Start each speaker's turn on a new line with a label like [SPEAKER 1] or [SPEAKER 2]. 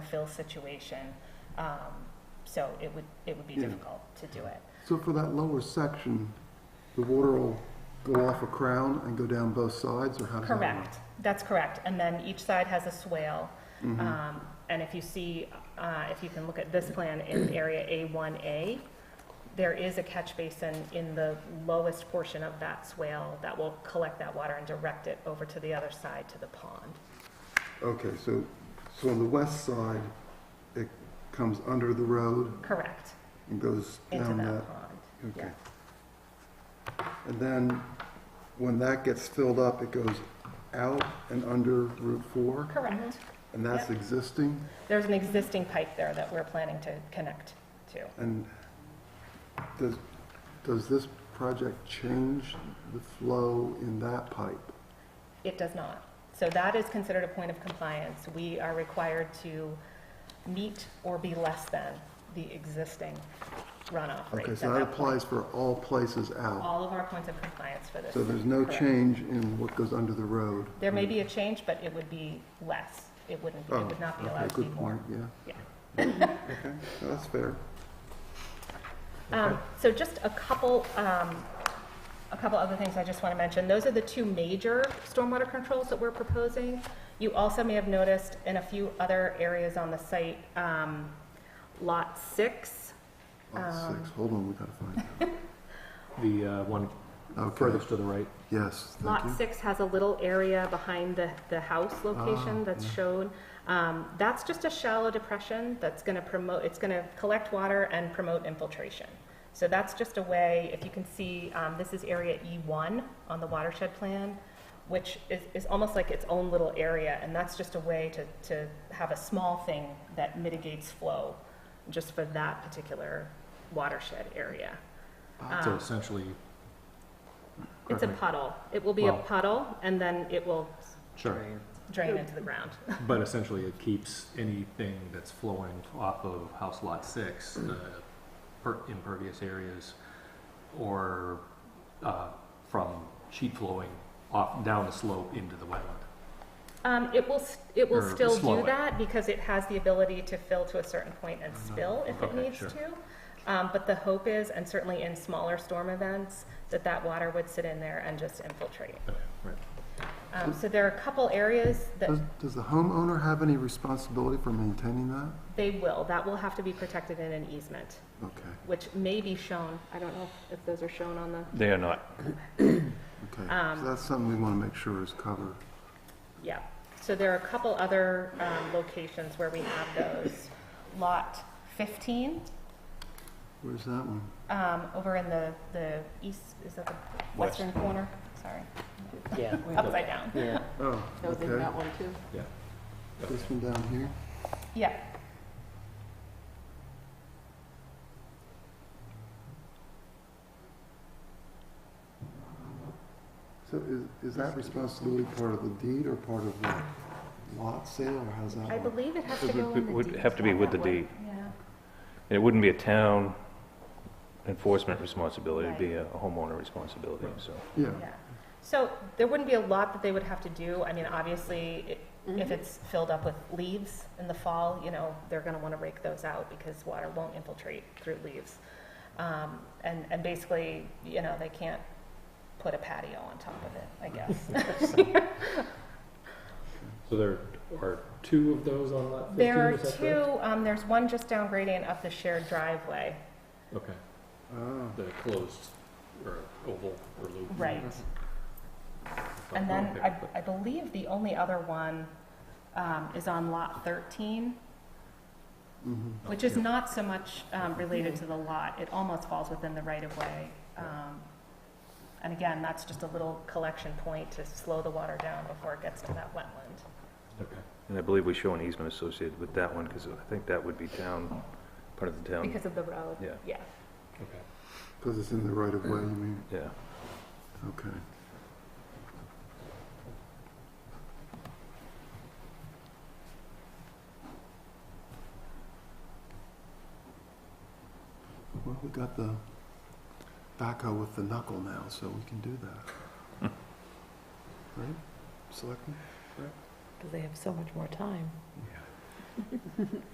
[SPEAKER 1] fill situation. Um, So it would, it would be
[SPEAKER 2] Yeah.
[SPEAKER 1] difficult to do it.
[SPEAKER 2] So for that lower section, the water will go off a crown and go down both sides, or how does that work?
[SPEAKER 1] Correct, that's correct. And then each side has a swale.
[SPEAKER 2] Mm-hmm.
[SPEAKER 1] Um, And if you see, uh, if you can look at this plan in area A1A, there is a catch basin in the lowest portion of that swale that will collect that water and direct it over to the other side to the pond.
[SPEAKER 2] Okay, so, so on the west side, it comes under the road
[SPEAKER 1] Correct,
[SPEAKER 2] and goes
[SPEAKER 1] into
[SPEAKER 2] down
[SPEAKER 1] that
[SPEAKER 2] that?
[SPEAKER 1] pond.
[SPEAKER 2] Okay.
[SPEAKER 1] yeah.
[SPEAKER 2] And then, when that gets filled up, it goes out and under Route 4?
[SPEAKER 1] Correct.
[SPEAKER 2] And that's
[SPEAKER 1] Yep.
[SPEAKER 2] existing?
[SPEAKER 1] There's an existing pipe there that we're planning to connect to.
[SPEAKER 2] And does, does this project change the flow in that pipe?
[SPEAKER 1] It does not. So that is considered a point of compliance. We are required to meet or be less than the existing runoff rate.
[SPEAKER 2] Okay, so that applies for all places out.
[SPEAKER 1] All of our points of compliance for this.
[SPEAKER 2] So there's no
[SPEAKER 1] Correct.
[SPEAKER 2] change in what goes under the road?
[SPEAKER 1] There may be a change, but it would be less. It wouldn't,
[SPEAKER 2] Oh,
[SPEAKER 1] it would not be
[SPEAKER 2] okay,
[SPEAKER 1] allowed to be
[SPEAKER 2] Good
[SPEAKER 1] more.
[SPEAKER 2] point, yeah.
[SPEAKER 1] Yeah.
[SPEAKER 2] Okay, no, that's fair.
[SPEAKER 1] Um, So just a couple, um, a couple other things I just want to mention. Those are the two major stormwater controls that we're proposing. You also may have noticed in a few other areas on the site, um, Lot 6,
[SPEAKER 2] Lot
[SPEAKER 1] Um,
[SPEAKER 2] six, hold on, we gotta find it.
[SPEAKER 3] The uh, one
[SPEAKER 2] Okay.
[SPEAKER 3] furthest to the right.
[SPEAKER 2] Yes, thank
[SPEAKER 1] Lot
[SPEAKER 2] you.
[SPEAKER 1] six has a little area behind the, the house location
[SPEAKER 2] Ah,
[SPEAKER 1] that's
[SPEAKER 2] yeah.
[SPEAKER 1] shown. Um, that's just a shallow depression that's gonna promote, it's gonna collect water and promote infiltration. So that's just a way, if you can see, um, this is area E one on the watershed plan, which is, is almost like its own little area, and that's just a way to, to have a small thing that mitigates flow, just for that particular watershed area.
[SPEAKER 3] So essentially,
[SPEAKER 1] It's a
[SPEAKER 3] Correct.
[SPEAKER 1] puddle. It will be a
[SPEAKER 3] Well-
[SPEAKER 1] puddle, and then it will
[SPEAKER 3] sure,
[SPEAKER 1] drain into the ground.
[SPEAKER 3] but essentially it keeps anything that's flowing off of House Lot 6, the per- impervious areas, or uh, from sheet flowing off, down the slope into the wetland.
[SPEAKER 1] Um, it will, s- it will
[SPEAKER 3] Or
[SPEAKER 1] still
[SPEAKER 3] slow
[SPEAKER 1] do
[SPEAKER 3] it.
[SPEAKER 1] that because it has the ability to fill to a certain point and spill if it
[SPEAKER 3] Mm-hmm. Okay,
[SPEAKER 1] needs
[SPEAKER 3] sure.
[SPEAKER 1] to. Um, but the hope is, and certainly in smaller storm events, that that water would sit in there and just infiltrate.
[SPEAKER 3] Right.
[SPEAKER 1] Um, so there are a couple areas that
[SPEAKER 3] Mm-hmm.
[SPEAKER 2] Does, does the homeowner have any responsibility for maintaining that?
[SPEAKER 1] they will, that will have to be protected in an easement,
[SPEAKER 2] Okay,
[SPEAKER 1] which may be shown, I don't know if those are shown on the,
[SPEAKER 4] They are not.
[SPEAKER 2] okay.
[SPEAKER 1] Um,
[SPEAKER 2] So that's something we wanna make sure is covered.
[SPEAKER 1] yeah. So there are a couple other, um, locations where we have those. Lot fifteen,
[SPEAKER 2] Where's that one?
[SPEAKER 1] um, over in the, the east, is that the
[SPEAKER 4] West.
[SPEAKER 1] western corner? Sorry,
[SPEAKER 5] Yeah.
[SPEAKER 1] upside down.
[SPEAKER 5] Yeah.
[SPEAKER 2] Oh,
[SPEAKER 5] That was in
[SPEAKER 2] okay.
[SPEAKER 5] that one too.
[SPEAKER 3] Yeah.
[SPEAKER 2] This one down here?
[SPEAKER 1] Yeah.
[SPEAKER 2] So is, is that responsibility part of the deed or part of the lot sale, or how's that
[SPEAKER 1] I
[SPEAKER 2] work?
[SPEAKER 1] believe it has to
[SPEAKER 4] It
[SPEAKER 1] go
[SPEAKER 4] would-
[SPEAKER 1] in the
[SPEAKER 4] would
[SPEAKER 1] deed.
[SPEAKER 4] have to be with the deed.
[SPEAKER 1] Yeah,
[SPEAKER 4] And it wouldn't be a town enforcement responsibility, it'd be a homeowner responsibility, so.
[SPEAKER 2] Yeah,
[SPEAKER 1] yeah. So there wouldn't be a lot that they would have to do. I mean, obviously, it- if it's filled up with leaves in the fall, you know, they're going to want to rake those out because water won't infiltrate through leaves. Um, And, and basically, you know, they can't put a patio on top of it, I guess.
[SPEAKER 3] So there are two of those on Lot 15,
[SPEAKER 1] There are
[SPEAKER 3] is that correct?
[SPEAKER 1] two, um, there's one just down gradient of the shared driveway.
[SPEAKER 3] Okay,
[SPEAKER 2] oh,
[SPEAKER 3] the closed, or oval, or loop. Oh,
[SPEAKER 1] Right. And then I, I believe the only other one um, is on lot 13,
[SPEAKER 2] mhm.
[SPEAKER 1] which is not so much um, related to the lot. It almost falls within the right-of-way. Um, And again, that's just a little collection point to slow the water down before it gets to that wetland.
[SPEAKER 3] Okay.
[SPEAKER 4] And I believe we show an easement associated with that one, because I think that would be town, part of the town.
[SPEAKER 1] Because of the road.
[SPEAKER 4] Um, Yeah.
[SPEAKER 1] Yeah.
[SPEAKER 3] Okay.
[SPEAKER 2] Because it's in the right of way, you mean?
[SPEAKER 4] Yeah.
[SPEAKER 2] Okay. Well, we got the backhoe with the knuckle now, so we can do that. Right, selectmen?
[SPEAKER 5] Because they have so much more time.
[SPEAKER 2] Yeah.